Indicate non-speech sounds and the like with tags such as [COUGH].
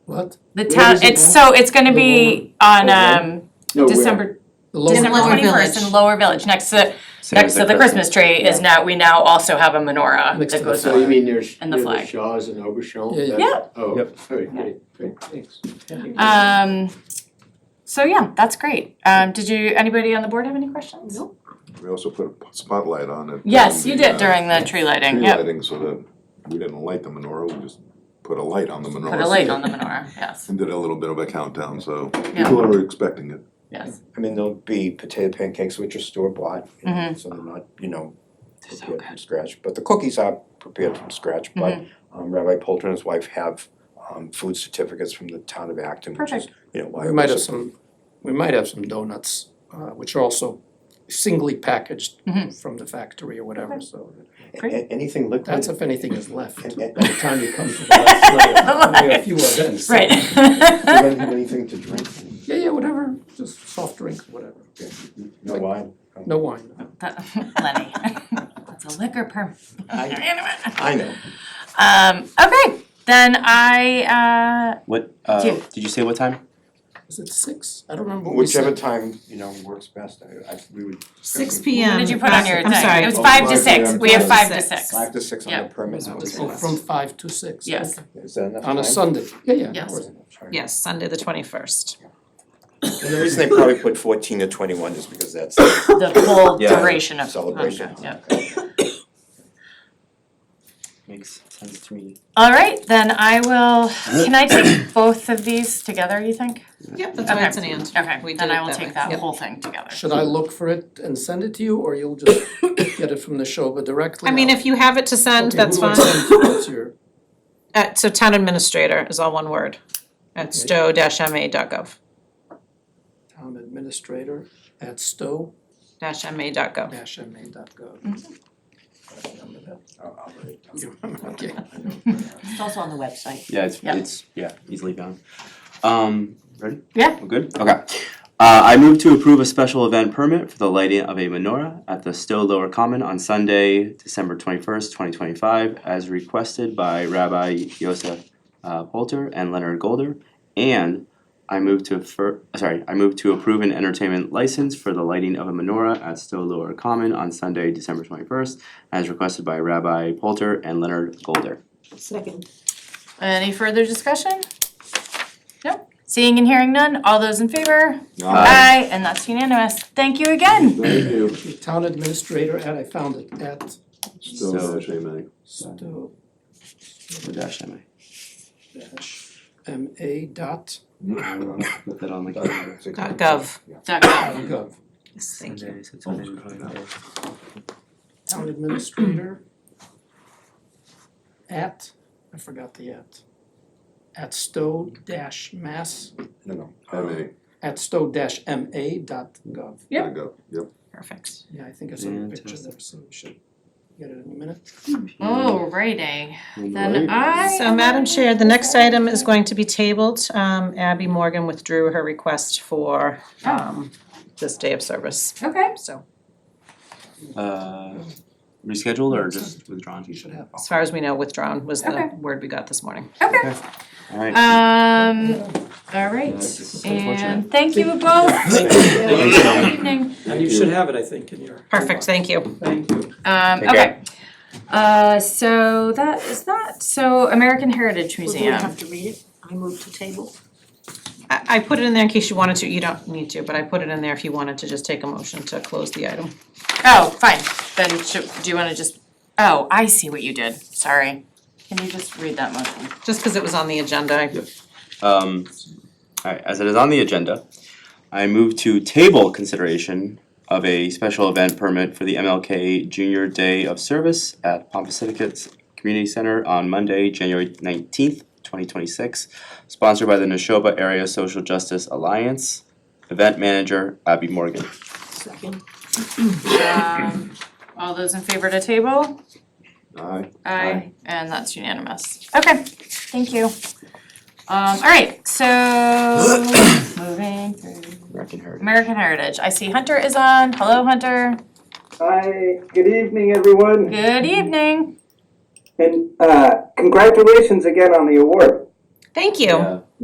What? The Where town, is it it's now? so, it's gonna be on um No, where? December, The lower December part? Lower twenty first in Village. Lower Village, next to, Same next as to the Christmas tree is now, we now also have a menorah Next that to the goes flag. on. So you mean there's, And the near the flag. Shaw's and Obashan? Yeah, yeah. That- Yeah. Oh, Yep. all right, great, great, thanks. Um, so yeah, that's great. Um, did you, anybody on the board have any questions? Nope. We also put a spotlight on it. Yes, you during did uh, during the tree lighting, Tree yep. lighting, so that we didn't light the menorah, we just put a light on the menorah. Put a light on the menorah, yes, And did a little bit of a countdown, so Yeah. people are expecting it. [LAUGHS] yes. I mean, there'll be potato pancakes, which are store bought, you know, Mhm. so they're not, you know, so prepared from scratch. But the cookies are prepared from scratch, but um, Rabbi Polter and his wife have um, food certificates from the town of Acton, which is, you know, why. We might have some, we might have some donuts, uh, which are also singly packaged Mm-hmm. Mhm. from the factory or whatever, so A- Great. a- Anything liquid. that's if anything is [LAUGHS] left. [LAUGHS] And- and- By the time you come [LAUGHS] to the last layer, we have few events. so- [LAUGHS] Right. Do you have anything to drink? Yeah, yeah, whatever, just soft drink, whatever, No wine? no wine. Lenny, that's a liquor permit. [LAUGHS] I know. Um, okay, then I, What, uh, Two. did you say what time? Is it six? I don't remember what we said. Whichever time, you know, works best. I, I, we would. Six discuss it. P uh, M. what did you put on your thing? I'm sorry. It was Oh, five to five six, p.m. we have five to Five to six. Five to six on Yeah. the permit. Oh, from five to six. Yes. okay. Is that enough On time? a Sunday, yeah, yeah. Yes. alright. Yes, Sunday the twenty-first. And the reason they probably put fourteen to twenty-one is because that's The full Yeah. duration of. celebration. Okay, yeah. Makes sense to me. All right, then I will, can I take both of these together, you think? Yep, that's why it's an Okay. and. Okay, We then did it I will that way. take that Yep. whole thing together. Should I look for it and send it to you, or you'll [COUGHS] just get it from the Shoba directly? I mean, if you have it to send, Okay, that's who do I fine. send to? What's your- Uh, so town administrator is all one word, at stowe-ma.gov, town administrator at stowe dash ma.gov. dash MA dot gov. I'll- I'll write it down. Okay. It's also on the website. Yeah, it's, Yeah. it's, yeah, easily found. Um, ready? Yeah. We're good? Okay. Uh, I move to approve a special event permit for the lighting of a menorah at the Stowe Lower Common on Sunday, December twenty-first, twenty twenty-five, as requested by Rabbi Yosef uh, Polter and Leonard Golder. And I move to fir- uh, sorry, I move to approve an entertainment license for the lighting of a menorah at Stowe Lower Common on Sunday, December twenty-first, as requested by Rabbi Polter and Leonard Golder. Second. Any further discussion? Nope, seeing and hearing none, all those in favor? Aye. and that's unanimous, thank you again. Thank you. The Town administrator at, I found it, at Still So- not shaming. stowe Dash MA. dash MA dot Put that on Dot six. Dot gov. gov. Thank you. Town administrator at, I forgot the at, at stowe dash mass, No, no. MA, at stowe dash MA dot gov. there you go, yep. Perfect. Yeah, I think I saw a picture there, so we should get it in a minute. Alrighty, then I. So Madam Chair, the next item is going to be tabled. Um, Abby Morgan withdrew her request for, um, this day of service, Okay, so Uh, rescheduled or just withdrawn? You should have. as far as we know, withdrawn was Okay. the word we got this morning. okay, Alright. [COUGHS] um, Yeah, it's alright, just unfortunate. and thank you both. Thank you. Good evening. And you should have it, I think, in your. Perfect, thank you. Thank you. Um, Take okay. Uh, so that is that. So American Heritage Well, do we Museum. have to read it? I move to table. I, I put it in there in case you wanted to, you don't need to, but I put it in there if you wanted to just take a motion to close the item. Oh, fine. Then should, do you wanna just, oh, I see what you did. Sorry. Can you just read that motion? Just because it was on the agenda, I Um, alright, as it is on the agenda, I move to table consideration of a special event permit for the MLK Junior Day of Service at Pompasiticus Community Center on Monday, January nineteenth, twenty twenty-six, sponsored by the Neshoba Area Social Justice Alliance, event manager Abby Morgan. Second. Um, all those in favor to table? Aye. Aye. And that's unanimous. Okay, thank you. Um, all right, so [CLEARS THROAT] moving through. American Heritage. American Heritage. I see Hunter is on. Hello, Hunter. Hi, good evening, everyone, Good evening. and uh, congratulations again on the award. Thank you. Yeah.